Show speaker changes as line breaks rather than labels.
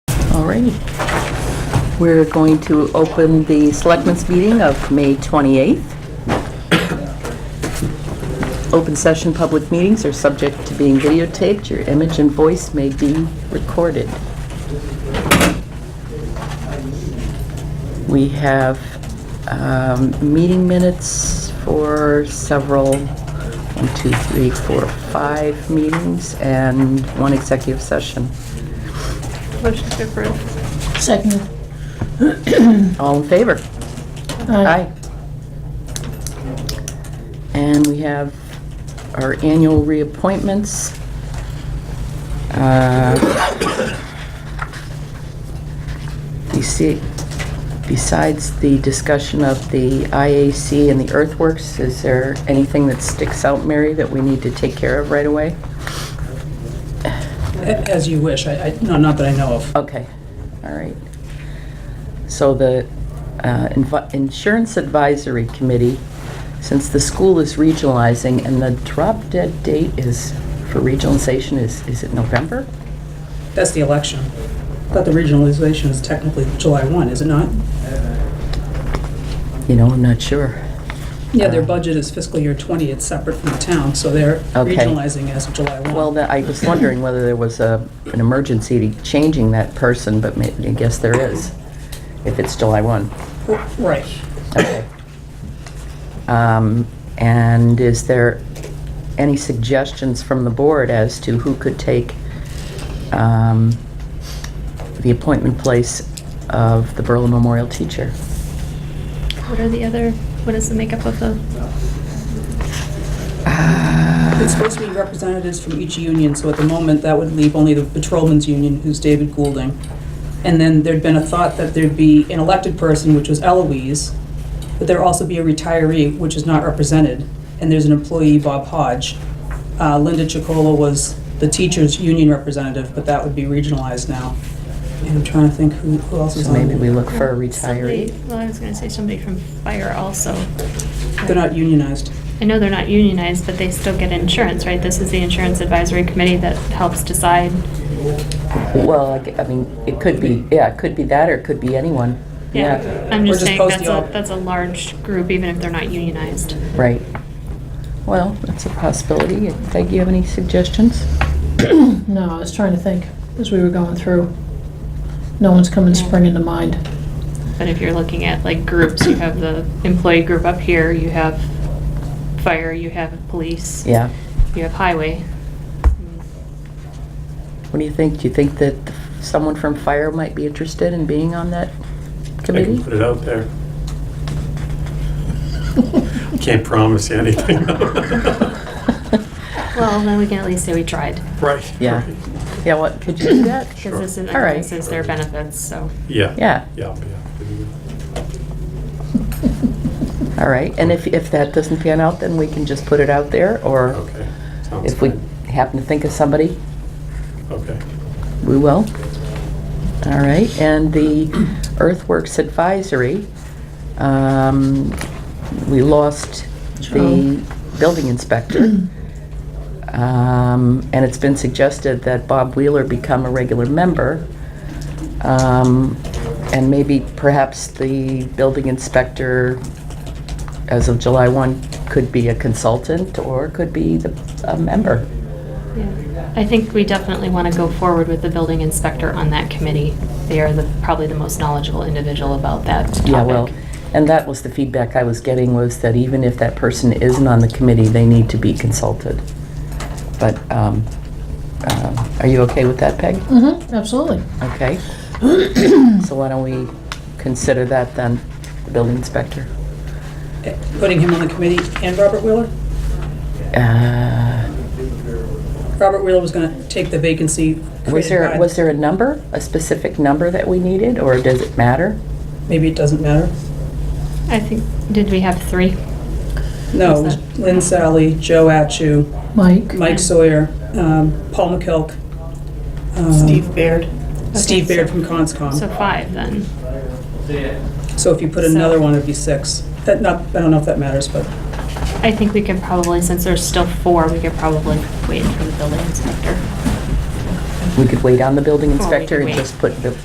All righty. We're going to open the Selectmen's meeting of May 28th. Open session public meetings are subject to being videotaped. Your image and voice may be recorded. We have um, meeting minutes for several, one, two, three, four, five meetings, and one executive session.
Motion to approve.
Second.
All in favor? Aye. And we have our annual reappointments. Uh, you see, Besides the discussion of the IAC and the earthworks, is there anything that sticks out, Mary, that we need to take care of right away?
A- As you wish, I, I- no, not that I know of.
Okay, all right. So the uh, invi- Insurance Advisory Committee, since the school is regionalizing and the drop dead date is, for regionalization is, is it November?
That's the election. But the regionalization is technically July 1, is it not?
You know, I'm not sure.
Yeah, their budget is fiscal year 20, it's separate from the town, so they're
Okay.
regionalizing as of July 1.
Well, that- I was wondering whether there was a, an emergency to changing that person, but ma- I guess there is, if it's July 1.
Right.
Okay. Um, And is there any suggestions from the board as to who could take um, the appointment place of the Berlin Memorial teacher?
What are the other, what is the makeup of the,
It's supposed to be representatives from each union, so at the moment, that would leave only the Patrolmen's Union, who's David Goulding. And then there'd been a thought that there'd be an elected person, which was Eloise, but there'd also be a retiree, which is not represented, and there's an employee, Bob Hodge. Uh, Linda Chicola was the teachers' union representative, but that would be regionalized now. And I'm trying to think who who else is
So
on.
maybe we look for a
Somebody-
retiree.
Well, I was gonna say somebody from fire also.
They're not unionized.
I know they're not unionized, but they still get insurance, right? This is the insurance advisory committee that helps decide.
Well, I g- I mean, it could be, yeah, it could be that, or it could be anyone.
Yeah, I'm
Or
just
just
saying
post
that's
the
a,
op-
that's a large group, even if they're not unionized.
Right. Well, that's a possibility. Peg, you have any suggestions?
No, I was trying to think as we were going through. No one's coming
Yeah.
springing to mind.
But if you're looking at like groups, you have the employee group up here, you have fire, you have police.
Yeah.
You have highway.
What do you think? Do you think that someone from fire might be interested in being on that
I
committee?
can put it out there. Can't promise you anything.
Well, then we can at least say we tried.
Right.
Yeah.
right.
Yeah, what, could you do that?
Because this is,
All right.
this is their benefits, so.
Yeah.
Yeah.
Yeah, yeah.
All right, and if, if that doesn't pan out, then we can just put it out there, or
Okay. Sounds
if we
good.
happen to think of somebody,
Okay.
we will. All right, and the Earthworks Advisory, um, we lost the building inspector. Um, and it's been suggested that Bob Wheeler become a regular member. Um, and maybe perhaps the building inspector, as of July 1, could be a consultant or could be the, a member.
yeah. I think we definitely want to go forward with the building inspector on that committee. They are the, probably the most knowledgeable individual about that topic.
Yeah, well, and that was the feedback I was getting was that even if that person isn't on the committee, they need to be consulted. But, um, uh, are you okay with that, Peg?
Mm-hmm, absolutely.
Okay. So why don't we consider that then, the building inspector?
Eh, Putting him on the committee and Robert Wheeler?
Uh,
Robert Wheeler was going to take the vacancy
Was
created by-
there, was there a number, a specific number that we needed, or does it matter?
Maybe it doesn't matter.
I think, did we have three?
No, it
Who's
was Lynn Sally, Joe Atchu,
Mike?
Mike Sawyer, um, Paul McKelk. um,
Steve Baird.
Steve Baird from
So
Conscom.
five then.
So if you put
so-
another one, it'd be six. That not, I don't know if that matters, but
I think we could probably, since there's still four, we could probably wait for the building inspector.
We could wait on the building
Well, we
inspector
could
and
wait.
just put the